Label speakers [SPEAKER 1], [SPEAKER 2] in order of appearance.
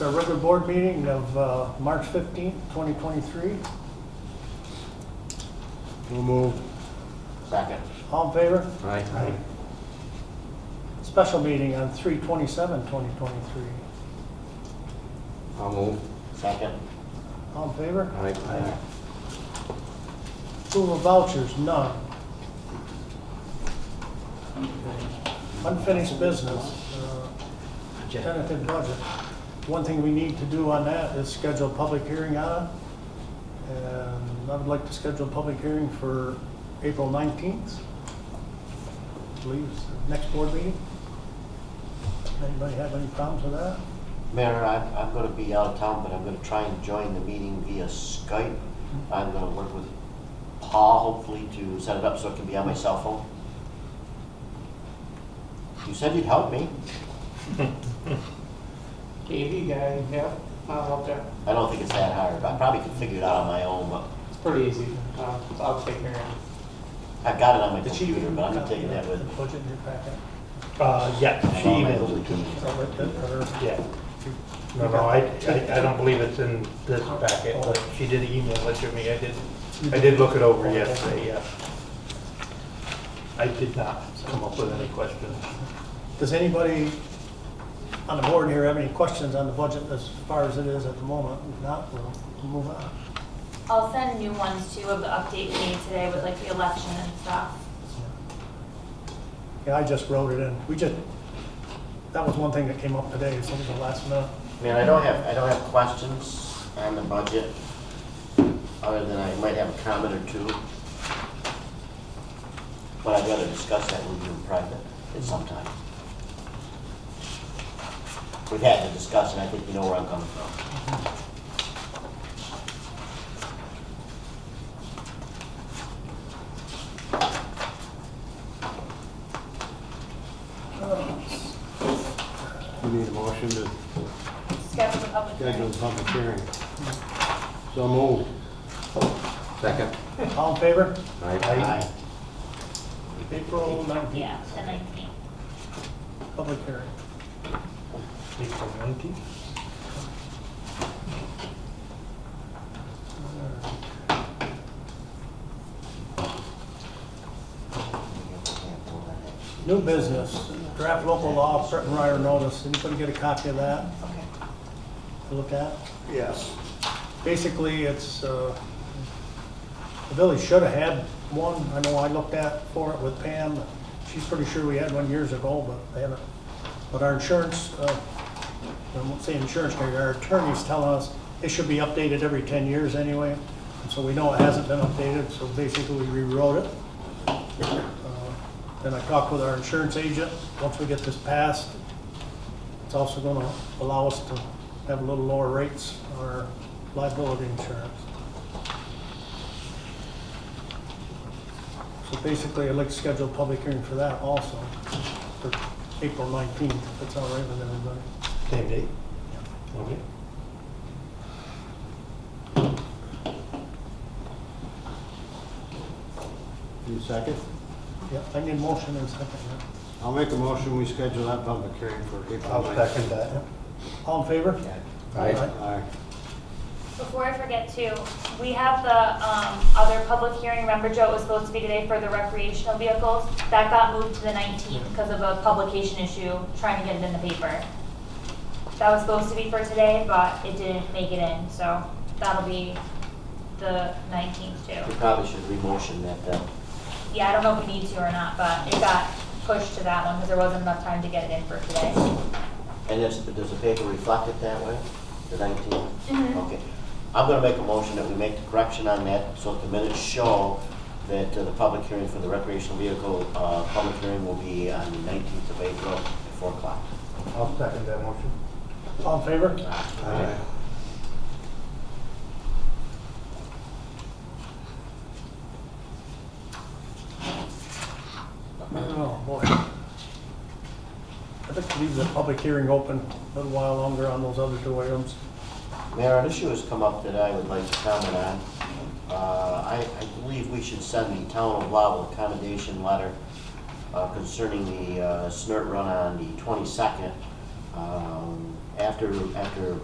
[SPEAKER 1] Our regular board meeting of uh, March 15th, 2023.
[SPEAKER 2] So moved.
[SPEAKER 3] Second.
[SPEAKER 1] All in favor?
[SPEAKER 3] Aye.
[SPEAKER 1] Special meeting on 3/27/2023.
[SPEAKER 3] I'll move. Second.
[SPEAKER 1] All in favor?
[SPEAKER 3] Aye.
[SPEAKER 1] Approval of vouchers, none. Unfinished business, uh, tentative budget. One thing we need to do on that is schedule a public hearing on it. And I would like to schedule a public hearing for April 19th. I believe it's the next board meeting. Anybody have any problems with that?
[SPEAKER 3] Mayor, I'm, I'm gonna be out of town, but I'm gonna try and join the meeting via Skype. I'm gonna work with Paul, hopefully, to set it up so it can be on my cell phone. You said you'd help me.
[SPEAKER 4] AV guy, yeah, I'll help there.
[SPEAKER 3] I don't think it's that hard. I probably could figure it out on my own, but
[SPEAKER 4] It's pretty easy. Uh, I'll take care of
[SPEAKER 3] I've got it on my
[SPEAKER 1] Did she-
[SPEAKER 3] computer, but I'm not taking that with me.
[SPEAKER 1] The budget in your packet.
[SPEAKER 5] Uh, yeah, she
[SPEAKER 3] On my
[SPEAKER 5] emailed,
[SPEAKER 1] Is that what that- or-
[SPEAKER 5] yeah. No, no, I, I, I don't believe it's in this packet, but she did email it to me, I did, I did look it over yesterday, yeah. I did not come up with any questions.
[SPEAKER 1] Does anybody on the board here have any questions on the budget as far as it is at the moment? If not, we'll move on.
[SPEAKER 6] I'll send new ones too of the update we made today with like the election and stuff.
[SPEAKER 1] Yeah, I just wrote it in. We just, that was one thing that came up today, so it was the last minute.
[SPEAKER 3] Man, I don't have, I don't have questions on the budget, other than I might have a comment or two. But I'd rather discuss that with you in private at some time. We've had the discussion, I think you know where I'm coming from.
[SPEAKER 2] We need a motion to
[SPEAKER 6] Schedule a public
[SPEAKER 2] schedule
[SPEAKER 6] hearing.
[SPEAKER 2] a public hearing. So moved.
[SPEAKER 7] Second.
[SPEAKER 1] All in favor?
[SPEAKER 3] Aye.
[SPEAKER 1] April 19th,
[SPEAKER 6] Yeah, the nineteenth.
[SPEAKER 1] public hearing.
[SPEAKER 5] April nineteenth?
[SPEAKER 1] New business, draft local law, Fred and Ryder notice. Anybody get a copy of that? Okay. To look at?
[SPEAKER 2] Yes.
[SPEAKER 1] basically, it's, uh, the village should have had one. I know I looked at for it with Pam. She's pretty sure we had one years ago, but they haven't. But our insurance, uh, I won't say insurance carrier, our attorney's telling us it should be updated every 10 years anyway. And So we know it hasn't been updated, so basically we rewrote it. Uh, Then I talked with our insurance agent. Once we get this passed, it's also going to allow us to have a little lower rates on our liability insurance. So basically, I'd like to schedule a public hearing for that also, for April 19th, if that's all right with everybody.
[SPEAKER 5] Same date? Okay.
[SPEAKER 2] You second?
[SPEAKER 1] Yeah, I need a motion and a second.
[SPEAKER 2] I'll make a motion, we schedule that public hearing for April
[SPEAKER 5] I'll
[SPEAKER 2] 9th.
[SPEAKER 5] second that.
[SPEAKER 1] yeah. All in favor?
[SPEAKER 7] Aye.
[SPEAKER 2] Aye.
[SPEAKER 6] Before I forget too, we have the, um, other public hearing, remember Joe, it was supposed to be today for the recreational vehicles? That got moved to the nineteenth because of a publication issue, trying to get it in the paper. That was supposed to be for today, but it didn't make it in, so that'll be the nineteenth
[SPEAKER 3] We
[SPEAKER 6] too.
[SPEAKER 3] probably should re-motion that uh, then.
[SPEAKER 6] Yeah, I don't know if we need to or not, but it got pushed to that one because there wasn't enough time to get it in for today.
[SPEAKER 3] And it's, does the paper reflect it that way, the 19th?
[SPEAKER 6] Mhm.
[SPEAKER 3] Okay. I'm going to make a motion that we make the correction on that, so that the minutes show that uh, the public hearing for the recreational vehicle, uh, public hearing will be on the 19th of April at 4 o'clock.
[SPEAKER 5] I'll second that motion.
[SPEAKER 1] All in favor?
[SPEAKER 2] Aye.
[SPEAKER 1] Oh, boy. I'd like to leave the public hearing open a little while longer on those other two items.
[SPEAKER 3] Mayor, an issue has come up that I would like to comment on. Uh, I, I believe we should send the town of Lowell a commendation letter uh, concerning the uh, snort run on the 22nd. Um, After, after